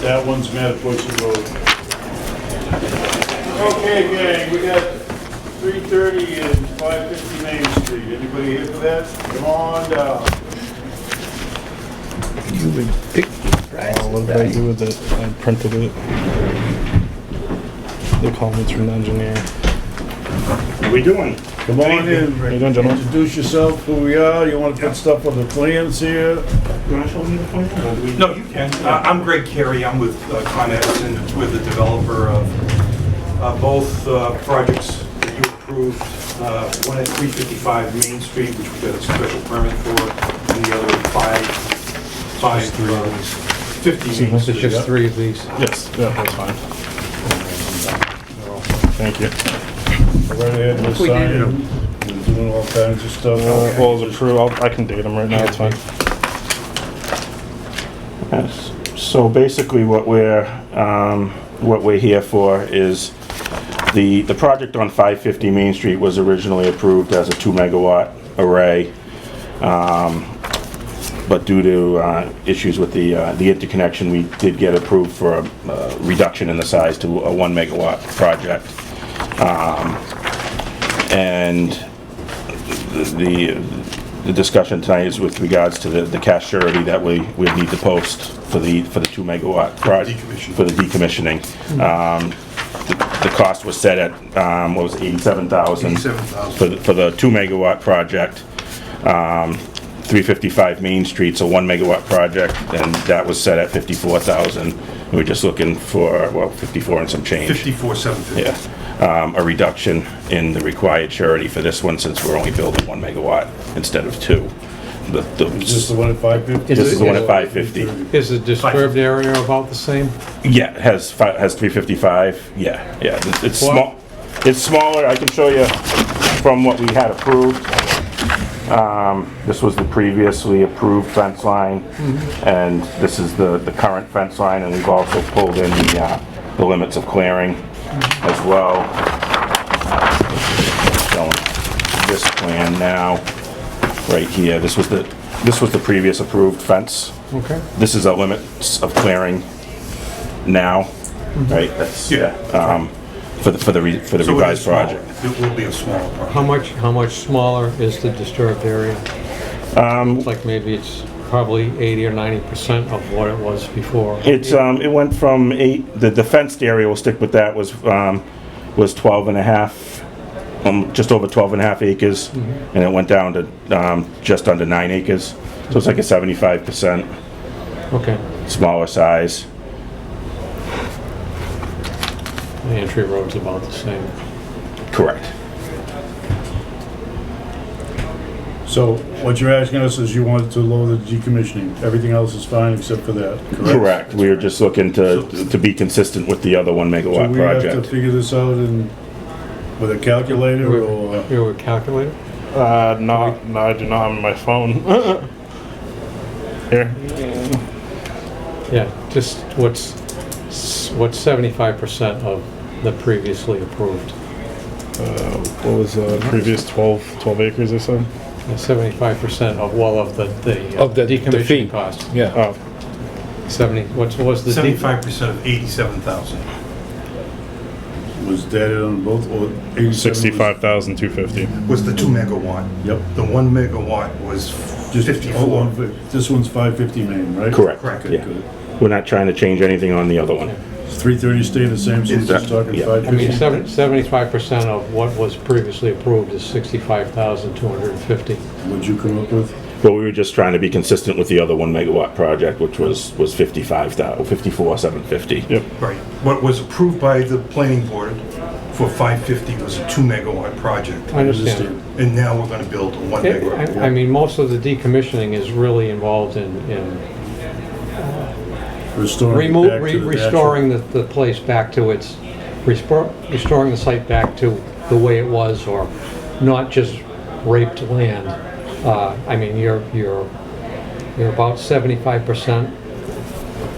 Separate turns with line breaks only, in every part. That one's Metapoiset Road. Okay, gang, we got three thirty and five fifty Main Street. Anybody here for that? Come on down.
You would pick I'll invite you with it. I printed it. The comments from the engineer.
What we doing?
Come on in,
How you doing, gentlemen?
introduce yourself, who we are, you wanna put stuff on the plans here?
You wanna show me the plan? or do we-
No, you can. Uh, I'm Greg Carey, I'm with uh, Con Edison, with the developer of uh, both uh, projects that you approved, uh, one at 355 Main Street, which we got a special permit for, and the other at 5, 5, uh, 50 Main Street.
just three of these.
Yes, yeah, that's fine. Thank you.
Right ahead, we're
We dated
signing, and doing all kinds of stuff.
Uh, well, it's approved. I'll, I can date them right now. It's fine.
Yes. So basically, what we're, um, what we're here for is, the, the project on 550 Main Street was originally approved as a 2-megawatt array, um, but due to uh, issues with the, uh, the interconnection, we did get approved for a uh, reduction in the size to a 1-megawatt project. Um, And the, the discussion tonight is with regards to the, the cash surety that we, we need to post for the, for the two megawatt project. For the decommissioning. Um, the, the cost was set at, um, what was it, eighty-seven thousand? For, the- for the two megawatt project. Um, three fifty-five Main Street's a one megawatt project, and that was set at fifty-four thousand. We We're just looking for, well, fifty-four and some change.
54, 750.
Yeah, um, a reduction in the required surety for this one since we're only building one megawatt instead of two. The- the-
Is this the one at five fifty?
This is the one at 550.
Is the disturbed area about the same?
Yeah, it has fi- has 355, yeah, yeah, it's- it's small, it's smaller, I can show you from what we had approved. Um, This was the previously approved fence line, and this is the, the current fence line, and we've also pulled in the, uh, the limits of clearing as well. Showing This plan now, right here, this was the, this was the previous approved fence.
Okay.
This is our limits of clearing now, right? That's, yeah, um, for the, for the, re- for the
So it is
revised
smaller.
project.
It will be a smaller project.
How much, how much smaller is the disturbed area? Um. Like maybe it's probably 80 or 90% of what it was before.
It's,
uh,
um, it went from eight, the, the fenced area, we'll stick with that, was, um, was twelve and a half, um, just over twelve and a half acres, and it went down to, um, just under nine acres. So it's like a seventy-five percent
Okay,
smaller size.
the entry road's about the same.
Correct.
So what you're asking us is you want to lower the decommissioning, everything else is fine except for that, correct?
Correct. We were just looking to, to be consistent with the other one
So
megawatt
we have to
project.
figure this out in, with a calculator or?
You were calculator?
Uh, no, no, I do not have my phone. Here.
Yeah, just what's, what's 75% of the previously approved?
Uh, what was the previous 12, 12 acres or so?
Yeah, 75% of, well, of the, the uh,
Of the- the fee.
decommissioning cost.
Yeah.
Oh,
70, what's, what's the? de-
75% of 87,000.
Was that on both, or 87?
65,250.
Was the 2 megawatt.
Yep.
The 1 megawatt was
Just, oh, on fi- this one's 550 main, right?
Correct.
Correct.
Yeah. We're not trying to change anything on the other one.
330 staying the same, so we're just talking
Yeah.
I mean,
550?
seventy-five percent of what was previously approved is sixty-five thousand two hundred and fifty.
What'd you come up with?
But we were just trying to be consistent with the other one megawatt project, which was, was 55,000, 54,750.
Yep.
Right. What was approved by the planning board for 550 was a 2 megawatt project.
I understand.
And now we're gonna build a one
It-
megawatt.
I I mean, most of the decommissioning is really involved in, in
Restoring it
remove,
back to the natural-
restoring the, the place back to its, restor- restoring the site back to the way it was, or not just raped land. Uh, I mean, you're, you're, you're about seventy-five percent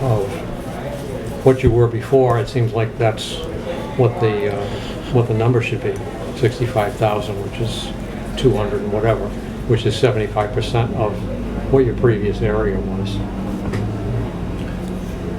of what you were before. It seems like that's what the, uh, what the number should be, sixty-five thousand, which is two hundred and whatever, which is seventy-five percent of what your previous area was.